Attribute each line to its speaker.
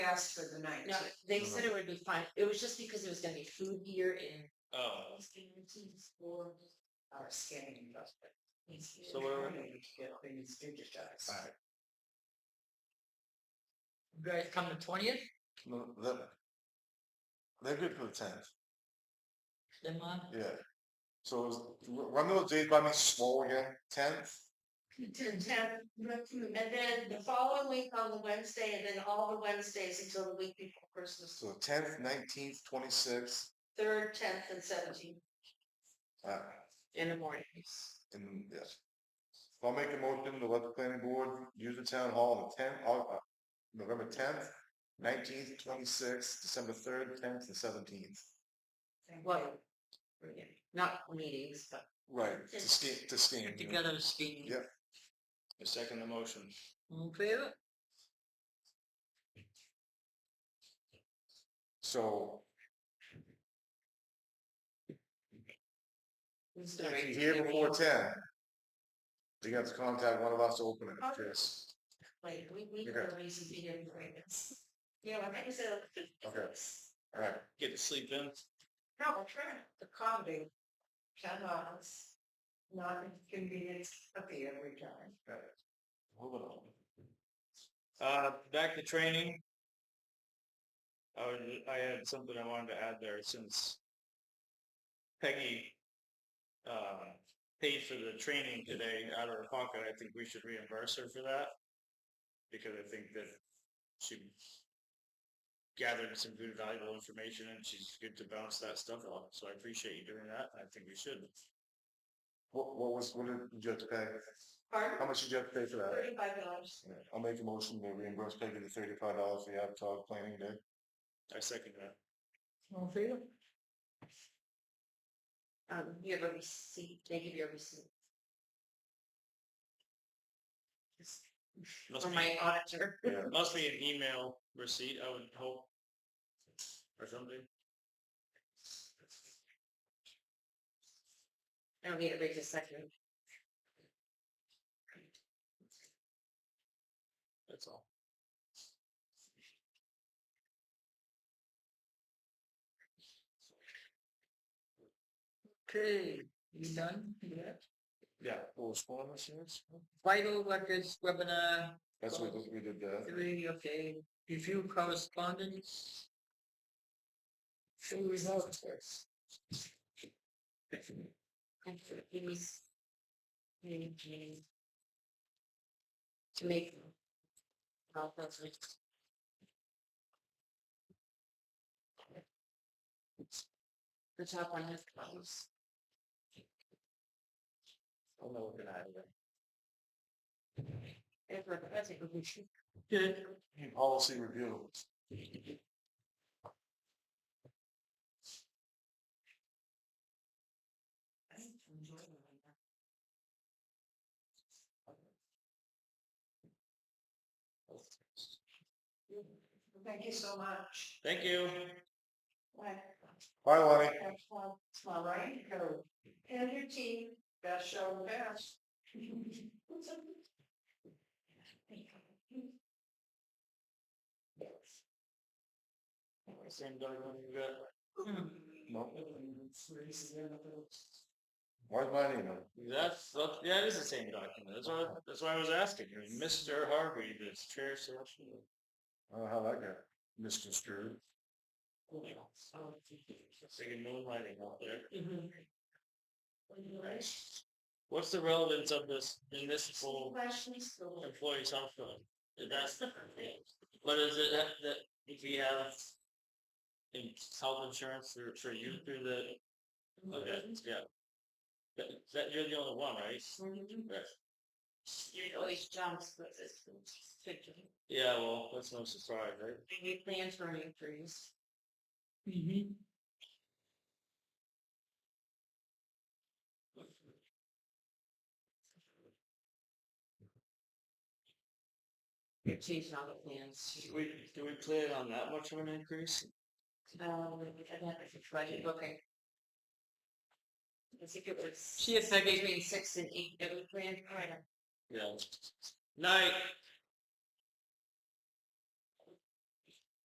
Speaker 1: asked for the
Speaker 2: No,
Speaker 1: nineteenth.
Speaker 2: they said it would be fine. It was just because it was gonna be food here and.
Speaker 3: Oh,
Speaker 2: for
Speaker 1: Our scanning adjustment.
Speaker 3: So where-
Speaker 1: Get things digitized.
Speaker 3: Alright.
Speaker 2: You guys come the twentieth,
Speaker 4: No, that, they're good for the tenth,
Speaker 2: then on.
Speaker 4: yeah. So it was, r- run those dates by me slow again, tenth,
Speaker 1: And then, and then the following week on the Wednesday, and then all the Wednesdays until the week before Christmas,
Speaker 4: so tenth, nineteenth, twenty-sixth,
Speaker 1: third, tenth, and seventeenth.
Speaker 4: uh,
Speaker 2: in the morning.
Speaker 4: and, yeah. So I'll make a motion to let the planning board use the town hall on the tenth, uh, November tenth, nineteenth, twenty-sixth, December third, tenth, and seventeenth.
Speaker 2: Well, not meetings, but.
Speaker 4: Right, to
Speaker 2: Just
Speaker 4: scan, to scan. you know.
Speaker 2: speaking.
Speaker 4: Yep.
Speaker 3: I second the motion.
Speaker 4: So, if
Speaker 2: Sorry.
Speaker 4: you're here before ten, you have to contact one of us to open it, Chris.
Speaker 1: Like, we, we
Speaker 4: Okay.
Speaker 1: got a reason to be here doing this. Yeah, I think so.
Speaker 4: Okay, all right.
Speaker 3: Get to sleep in.
Speaker 1: No, we're trying to accommodate Shannon's non-convenience of the every time.
Speaker 3: Moving on. Uh, back to training. I was, I had something I wanted to add there since Peggy, uh, paid for the training today out of her pocket. I think we should reimburse her for that. Because I think that she gathered some good valuable information and she's good to bounce that stuff off. So I appreciate you doing that. I think we should.
Speaker 4: What, what was, what did you have to pay? How
Speaker 1: Pardon?
Speaker 4: much did you have to pay for that?
Speaker 1: Thirty-five dollars.
Speaker 4: Yeah, I'll make a motion to reimburse Peggy the thirty-five dollars for the Avatar planning day.
Speaker 3: I second that.
Speaker 2: Um, you have a receipt, they give you a receipt.
Speaker 3: Must
Speaker 2: For
Speaker 3: be-
Speaker 2: my auditor.
Speaker 3: Must be an email receipt, I would hope. Or something.
Speaker 2: I don't need it right this second.
Speaker 3: That's all.
Speaker 2: Okay, you done?
Speaker 3: Yeah.
Speaker 2: Vital records webinar
Speaker 4: That's what we did uh, there.
Speaker 2: Three, okay, review correspondence. Show results first. To make. I'll go through. The top one has closed.
Speaker 3: I'm not looking at it.
Speaker 2: If we're present, we should. Good.
Speaker 4: Policy review.
Speaker 1: Thank you so much.
Speaker 3: Thank you.
Speaker 4: Bye, Lonnie.
Speaker 1: It's my right go. And your team, best show best.
Speaker 3: Same document you got?
Speaker 4: No, where's my email?
Speaker 3: That's, that- yeah, it is the same document, that's why, that's why I was asking, I mean, Mr. Harvey, the chair selection.
Speaker 4: I don't know how that got misconstrued.
Speaker 3: Big moonlighting out there.
Speaker 2: Mm-hmm.
Speaker 3: What's the relevance of this municipal
Speaker 1: Questions?
Speaker 3: employees health fund? Is that, but is it that, that if we have in health insurance for, for you through the Okay, yeah. That, that you're the only one, right?
Speaker 2: Mm-hmm.
Speaker 3: Right.
Speaker 2: It always jumps, but it's.
Speaker 3: Yeah, well, that's no surprise, right?
Speaker 2: Any plans for any trees? You're changing all the plans.
Speaker 3: Do we, do we plan on that much of an increase?
Speaker 2: Um, I'd have to try to, okay. I think it was. She has between six and eight, every plan, right?
Speaker 3: Yeah. Night.